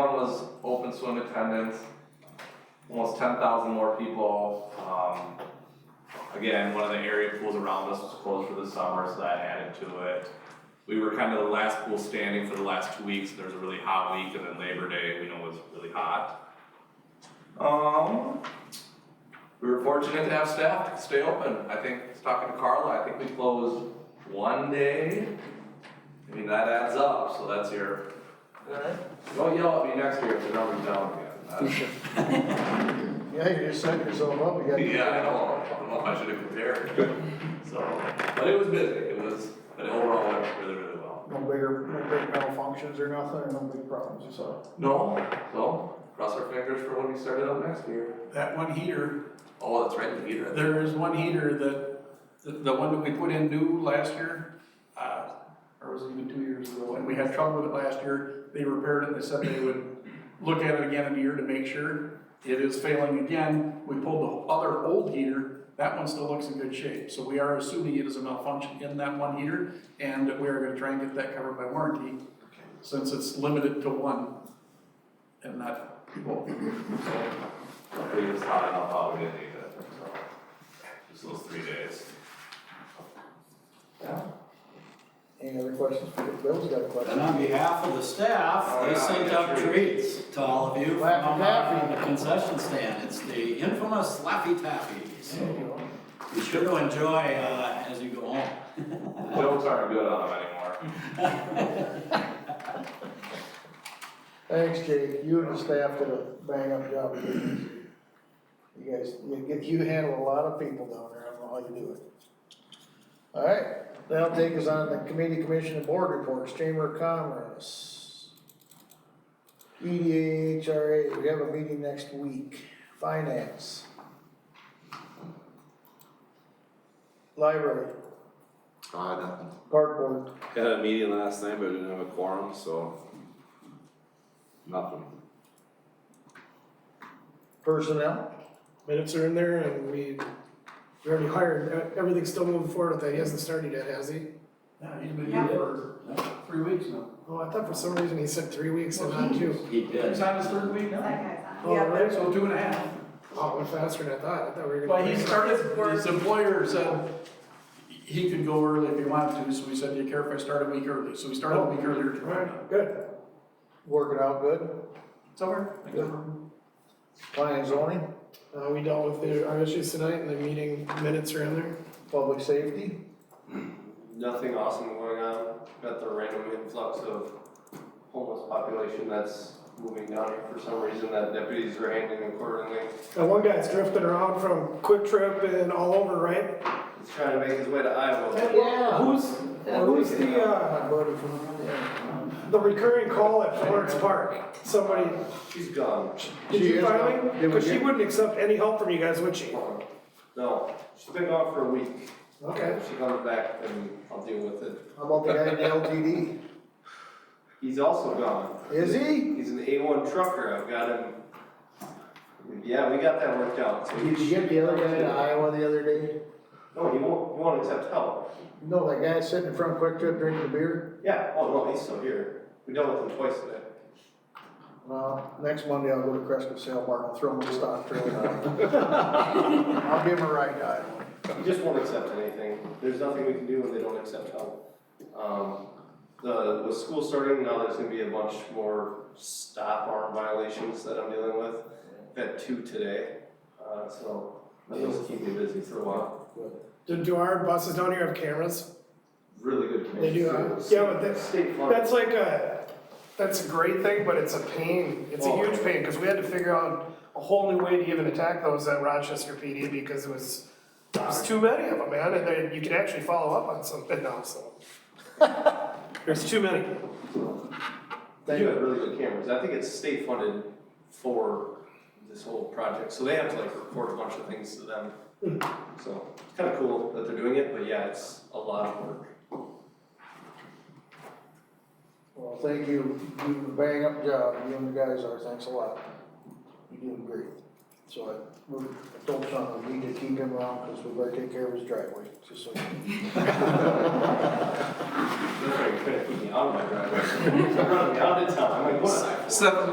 One was open swim attendance, almost ten thousand more people, um. Again, one of the area pools around us was closed for the summer, so that added to it. We were kind of the last pool standing for the last two weeks, there was a really hot week, and then Labor Day, we know was really hot. Um, we were fortunate to have staff to stay open, I think, I was talking to Carla, I think we closed one day. I mean, that adds up, so that's your don't yell at me next year if the number's down again. Yeah, you're just setting yourself up, you Uh, got. Yeah, I know, I don't know if I should have compared, so, but it was busy, it was, but overall, it went really, really well. No bigger, no big malfunctions or nothing, or no big problems, you saw. No, so, cross our fingers for when we start it up next year. That one heater, Oh, that's right, the heater. there is one heater that, the, the one that we put in new last year, uh, or was it even two years ago, and we had trouble with it last year. They repaired it, they said they would look at it again in a year to make sure. It is failing again. We pulled the other old heater, that one still looks in good shape. So we are assuming it is a malfunction in that one heater, and we are gonna try and get that covered by warranty, since it's limited to one and not people. We just hot enough out, we didn't need it, so, just those three days. Any other questions? for Bill? Bill's got a question. And on behalf of the staff, they sent out treats to all of you from uh, the concession stand. It's the infamous Laffy Taffy, There so you go. be sure to enjoy uh, as you go home. Jokes aren't good on them anymore. Thanks, Jake, you and the staff did a bang-up job. of business. You guys, you, get- you handle a lot of people down there, I don't know how you do it. All right, that'll take us on the committee, commission, and board reports, Chamber of Commerce. E EDA, HRA, we have a meeting next week, finance. Library, Ah, Uh, nothing. park board, Had a meeting last night, but we didn't have a quorum, so. Nothing. personnel, minutes are in there and we, we already hired, uh, everything's still moving forward with that, he hasn't started yet, has he? Yeah, he's been here for three weeks now. Oh, I thought for some reason he said three weeks and not two. He did. He's on his third week now. Oh, really? So two and a half. Oh, it went faster than I thought, I thought we were gonna. But he started, his employer said he could go early if he wanted to, so we said, do you care if I start a week early? So we started a week earlier tomorrow. Alright, good, working out good, Somewhere. planning and zoning, uh, we dealt with the, our issues tonight and the meeting minutes are in there. public safety, nothing awesome going on. Got the random influx of homeless population that's moving down here for some reason that deputies are handling accordingly. And one guy's drifting around from Quick Trip and all over, right? He's trying to make his way to Iowa. Yeah. Who's, who's the, uh, My buddy from, yeah. the recurring call at Florence Park? Somebody, She's gone. did She you is finally? gone. Did we Cause she get- wouldn't accept any help from you guys, would she? No, she's been gone for a week. Okay. If She comes back and I'll deal with it. How about the guy in the LTD? He's also gone. Is he? He's an A1 trucker. I've got him. Yeah, we got that worked out. So Did you get the other guy to Iowa the other day? No, he won't, he won't accept help. No, that guy sitting in front of Quick Trip drinking a beer? Yeah, oh no, he's still here. We dealt with him twice today. Well, next Monday I'll go to Cresco Sale Bar and throw him a stock trailer. I'll give him a ride to Iowa. He just won't accept anything. There's nothing we can do when they don't accept help. Um, the, with school starting, now there's gonna be a bunch more stop arm violations that I'm dealing with. Had two today, uh, so that'll just keep me busy for a while. Do, do our buses down here have cameras? Really good. They do, huh? communication. Yeah, but that's- State funded. That's like a, that's a great thing, but it's a pain. It's a Oh. huge pain, because we had to figure out a whole new way to even attack those at Rochester PD because it was, it was too many of them, man, and then you can actually follow up on something now, so. There's too many. They do have really good cameras. I think it's state funded for this whole project, so they have to like report a bunch of things to them. Hmm. So it's kind of cool that they're doing it, but yeah, it's a lot of work. Well, thank you, you do a bang up job, you and the guys are, thanks a lot. You're doing great. So I, we I told Sean, we need to keep him around, cause we better take care of his driveway, just so. They're trying to keep me out of my driveway. They're running me out of town. I'm like, what? Seven